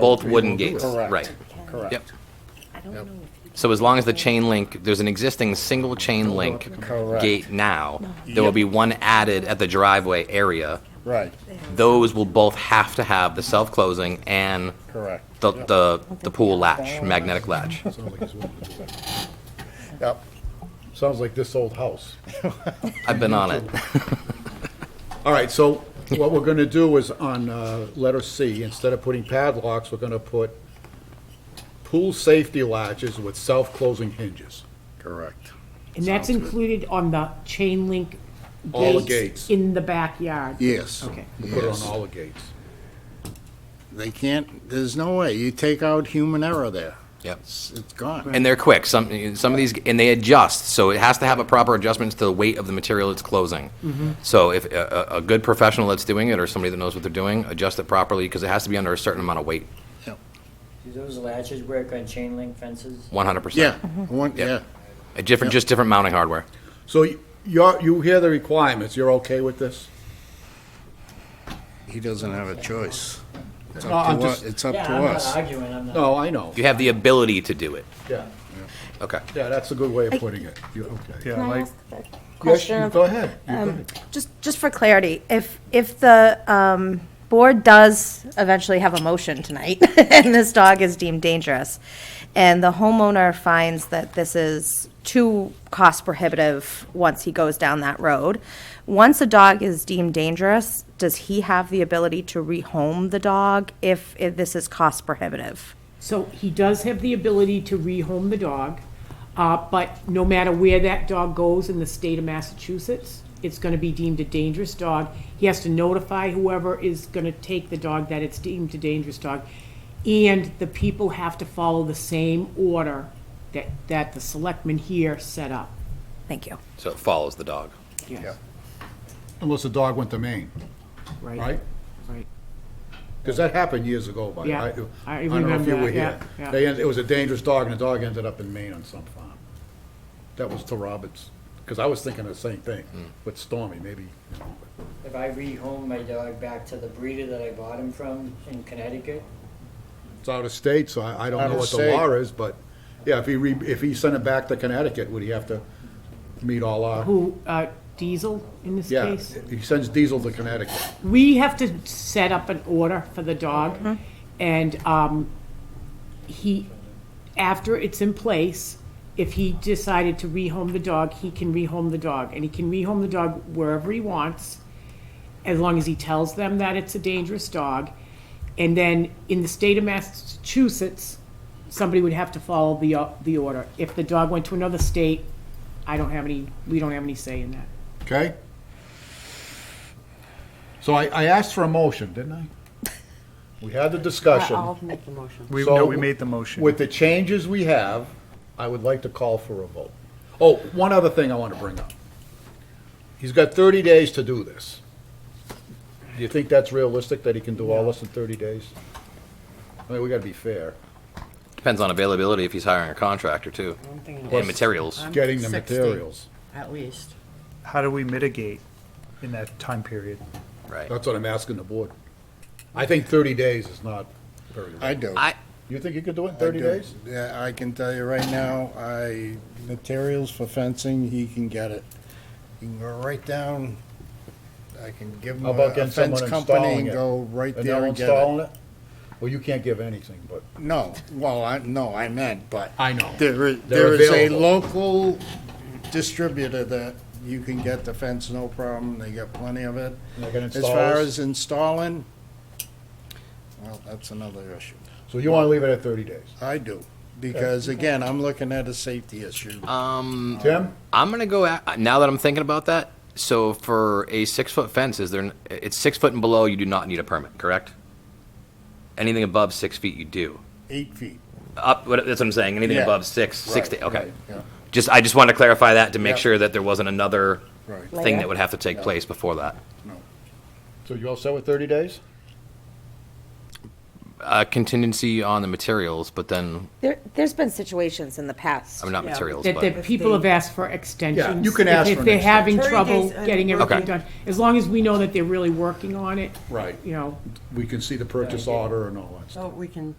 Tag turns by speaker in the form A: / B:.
A: Both wooden
B: will do
A: gates,
B: it. Correct.
A: right. Yep.
B: Correct.
C: I don't know
B: Yep.
C: if
A: So as long as the chain link, there's an existing single chain link
B: Correct.
A: gate now, there will be one added at the driveway area.
B: Right,
A: Those will both have to have the self-closing and
B: correct.
A: the, the, the pool latch, magnetic latch.
D: Sounds like it's one of the doors.
B: Yep.
D: Sounds like this old house.
A: I've been on it.
D: All right, so what we're gonna do is on, uh, letter C, instead of putting padlocks, we're gonna put pool safety latches with self-closing hinges.
B: Correct.
E: And that's included on the chain link
D: All the gates.
E: gates in the backyard?
B: Yes.
E: Okay.
D: We'll Put it on
B: Yes.
D: all the gates.
B: They can't, there's no way. You take out human error there.
A: Yep.
B: It's it's gone.
A: And they're quick. Some, some of these, and they adjust, so it has to have a proper adjustment to the weight of the material it's closing.
B: Mm-hmm.
A: So if a, a a good professional that's doing it, or somebody that knows what they're doing, adjust it properly, because it has to be under a certain amount of weight,
F: Do those latches work on chain link fences?
A: one hundred percent.
B: Yeah, one, yeah.
A: A different, just different mounting hardware.
D: So y- you're, you hear the requirements, you're okay with this?
B: He doesn't have a choice. It's
D: No, I'm
B: up to us.
D: just-
B: It's up
F: Yeah,
B: to
F: I'm not
B: us.
F: arguing, I'm not.
D: No, I know.
A: You have the ability to do it.
D: Yeah,
A: Okay.
D: yeah, that's a good way of putting it. You- okay.
G: Can I ask a
D: Yes,
G: question?
D: you
G: of-
D: go ahead. You go
G: um,
D: ahead.
G: Just, just for clarity, if, if the um, board does eventually have a motion tonight, and this dog is deemed dangerous, and the homeowner finds that this is too cost prohibitive once he goes down that road, once a dog is deemed dangerous, does he have the ability to rehome the dog if if this is cost prohibitive?
E: So he does have the ability to rehome the dog, uh, but no matter where that dog goes in the state of Massachusetts, it's gonna be deemed a dangerous dog. He has to notify whoever is gonna take the dog that it's deemed a dangerous dog. And the people have to follow the same order that, that the selectmen here set up.
G: Thank you.
A: So it follows the dog.
E: Yes,
D: Unless the dog went to Maine, right?
E: Right.
D: Because that happened years ago, but
E: Yeah,
D: I, I
E: I
D: don't know if
E: remember
D: you were
E: that, yeah,
D: here.
E: yeah.
D: They, end- it was a dangerous dog, and the dog ended up in Maine on some farm. That was to Roberts, because I was thinking the same thing
B: Hmm.
D: with Stormy, maybe, you know, but-
F: If I rehome my dog back to the breeder that I bought him from in Connecticut,
D: it's out of state, so I, I don't
B: Out
D: know
B: of
D: what the
B: state.
D: law is, but, yeah, if he re, if he sent it back to Connecticut, would he have to meet all our,
E: Who, uh, Diesel in this
D: yeah,
E: case?
D: he sends Diesel to Connecticut.
E: We have to set up an order for the dog, and um, he, after it's in place, if he decided to rehome the dog, he can rehome the dog, and he can rehome the dog wherever he wants, as long as he tells them that it's a dangerous dog. And then, in the state of Massachusetts, somebody would have to follow the, uh, the order. If the dog went to another state, I don't have any, we don't have any say in that.
D: Okay? So I, I asked for a motion, didn't I? We had the discussion. Uh, I'll make the motion.
H: We, no, we made the motion.
D: With the changes we have, I would like to call for a vote. Oh, one other thing I want to bring up. He's got thirty days to do this. Do you think that's realistic, that he can do all this in thirty days? I mean, we gotta be fair.
A: Depends on availability if he's hiring a contractor too, and materials.
D: Getting the materials.
I: At least.
H: How do we mitigate in that time period?
A: Right.
D: That's what I'm asking the board. I think thirty days is not very,
B: I do.
A: I,
D: you think you could do it in
B: I
D: thirty
B: do.
D: days?
B: Yeah, I can tell you right now, I, materials for fencing, he can get it. You can go right down, I can give him
D: How
B: a
D: about
B: a
D: getting
B: fence
D: someone
B: company
D: installing
B: and
D: it?
B: go right
D: And
B: there
D: they're
B: and get it.
D: installing it? Well, you can't give anything, but.
B: No, well, I, no, I meant, but.
D: I know.
B: There is,
D: They're
B: there is a
D: available.
B: local distributor that you can get the fence, no problem, they got plenty of it.
D: They're gonna
B: As
D: install
B: far
D: this?
B: as installing, well, that's another issue.
D: So you wanna leave it at thirty days?
B: I do, because again, I'm looking at a safety issue.
A: um,
D: Tim?
A: I'm gonna go at, now that I'm thinking about that. So for a six foot fence, is there? n- It's six foot and below. You do not need a permit, correct? Anything above six feet, you do.
B: Eight feet.
A: Up. What, that's what I'm saying. Anything
B: Yeah.
A: above six, six.
B: Right,
A: To, okay.
B: right, yeah.
A: Just I just wanted to clarify that to make
B: Yeah.
A: sure that there wasn't another
B: Right.
A: thing that would have to take place before that.
D: So you all set with thirty days?
A: a Uh, contingency on the materials, but then,
G: There, there's been situations in the past.
A: I mean, not materials,
E: That,
A: but,
E: that people have asked for extensions.
D: you can ask
E: if-
D: for an
E: If they're having
C: extension.
E: trouble
C: 30 days, uh,
E: getting everything
A: Okay.
E: done, as long as we know that they're really working on it.
D: Right.
E: You know.
D: We can see the purchase order and all that stuff.
C: So we can